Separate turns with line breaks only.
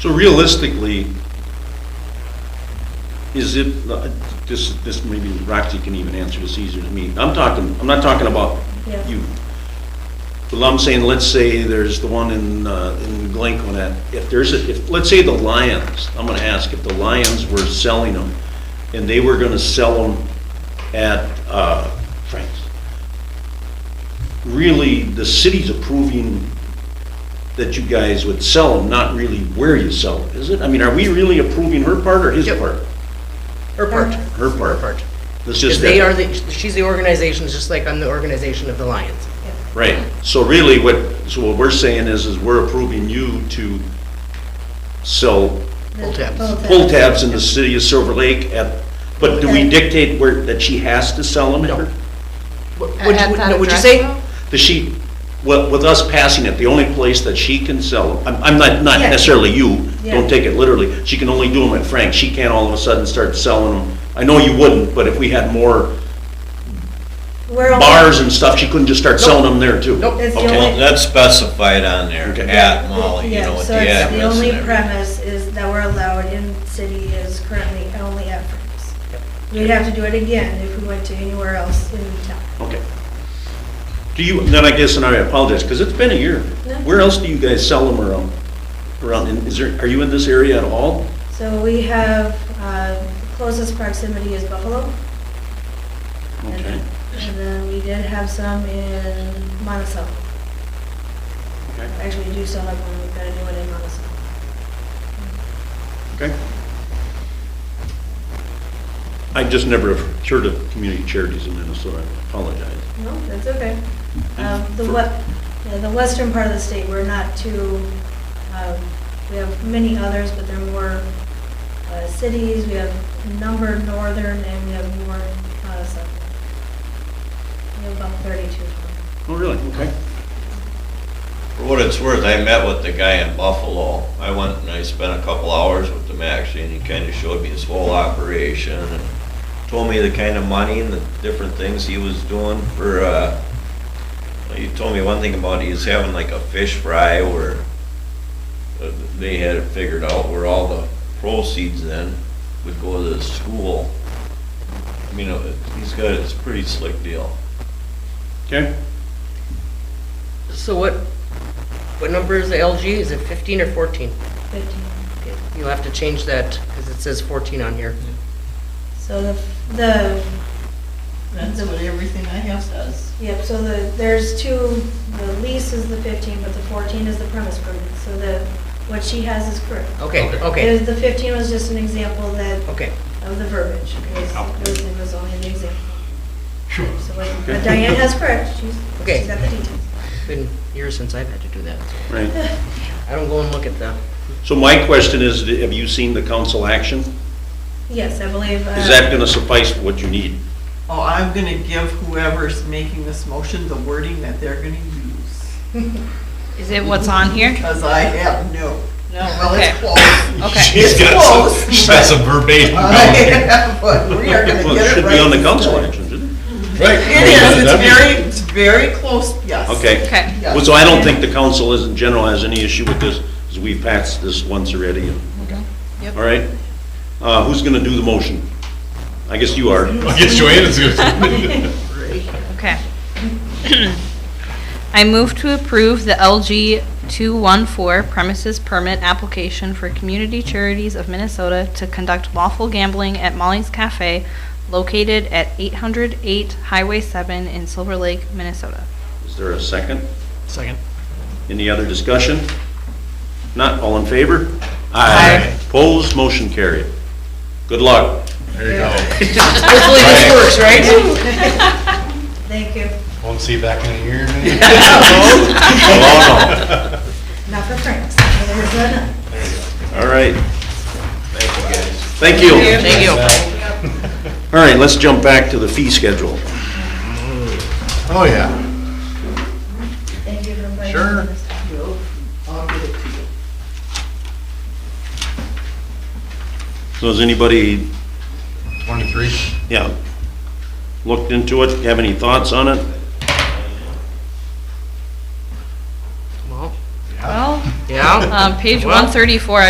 So realistically, is it, uh, this, this maybe Roxy can even answer this easier than me. I'm talking, I'm not talking about
Yeah.
you. But I'm saying, let's say there's the one in, uh, in Glencoe that, if there's, a if, let's say the Lions, I'm gonna ask if the Lions were selling them and they were gonna sell them at, uh, Frank's. Really, the city's approving that you guys would sell them, not really where you sell them, is it? I mean, are we really approving her part or his
Yep.
part?
Her part.
Her part.
part.
It's
Because
just
they are
that,
the, she's the organization, just like I'm the organization of the Lions.
right, so really what, so what we're saying is, is we're approving you to sell
Pull tabs.
pull tabs in the city of Silver Lake at, but do we dictate where, that she has to sell them?
No. What-
At-
What'd
at
you-
that
no, what'd you
address,
say?
though?
Does she, with, with us passing it, the only place that she can sell them, I'm, I'm not, not
Yeah.
necessarily you,
Yeah.
don't take it literally, she can only do them at Frank's, she can't all of a sudden start selling them. I know you wouldn't, but if we had more
We're only-
bars and stuff, she couldn't just start selling them there too?
Nope.
It's the
Okay.
only-
Well, that's specified on there,
Okay.
at Molly, you
Yeah,
know, with
so
the
it's
address and
The only
everything.
premise is that we're allowed in city is currently only at Frank's. We'd have to do it again if we went to anywhere else in town.
Okay. Do you, then I guess, and I apologize, because it's been a year.
No.
Where else do you guys sell them around, around, and is there, are you in this area at all?
So we have, uh, closest proximity is Buffalo. And
Okay.
and then we did have some in Monticello.
Okay.
Actually, we do still have one, we've got a new one in Monticello.
Okay. I just never have heard of community charities in Minnesota, I apologize.
No, that's okay. Um, The what, the western part of the state, we're not too, um, we have many others, but they're more uh, cities, we have a number northern, and we have more uh, southern. We have about 32.
Oh, really? Okay.
For what it's worth, I met with the guy in Buffalo. I went and I spent a couple hours with him actually, and he kinda showed me his whole operation and told me the kind of money and the different things he was doing for, uh, he told me one thing about he's having like a fish fry where uh, they had it figured out where all the proceeds then would go to the school. I mean, uh, he's got, it's a pretty slick deal.
Okay.
So what, what number is the LG? Is it 15 or 14?
15.
Okay, You'll have to change that, because it says 14 on here.
So the, the,
That's what everything I have says.
yep, so the, there's two, the lease is the 15, but the 14 is the premise permit. So the, what she has is correct.
Oh,
Okay, okay,
Is The 15 was just an example that
okay. Oh.
of the verbiage, because it was- it was only an example. Sure. But Diane has correct, she's,
Okay.
she's got the details.
Been years since I've had to do that. so
Right.
I don't go and look at the,
So my question is, have you seen the council action?
Yes, I believe. uh,
Is that going to suffice for what you need?
Oh, I'm gonna give whoever's making this motion the wording that they're gonna use,
Is it what's on here?
because I have no. No. Well,
okay.
it's close.
Okay.
He's got
Close,
some, she's got some verbatim.
I have, but we are gonna
Well,
get
it
it
should be
right
on the
this
council
time.
action, shouldn't it?
Right.
It is, it's very, it's very close, yes.
Okay.
Okay.
Yeah.
Well, So I don't think the council is, in general, has any issue with this, because we've passed this once already. and-
Yep.
All right? Uh, Who's going to do the motion? I guess you are.
I guess Joanna's gonna.
Okay. I move to approve the LG 214 premises permit application for Community Charities of Minnesota to conduct lawful gambling at Molly's Cafe located at 808 Highway 7 in Silver Lake, Minnesota.
Is there a second?
second.
Any other discussion? Not, all in favor?
Aye.
Opposed, motion carried. Good luck.
There you go.
Hopefully this works, right?
Thank you,
Won't see you back in a year, maybe?
Oh,
not for Frank's. There's another.
no. All right.
Thank you, guys.
Thank you.
Thank you.
All right, let's jump back to the fee schedule.
Oh, yeah.
Thank you for inviting me.
Sure.
I'll give it to you.
So has anybody,
Twenty-three.
yeah, looked into it? Have any thoughts on it?
Well,
Well,
yeah.
um, page
Well-
134,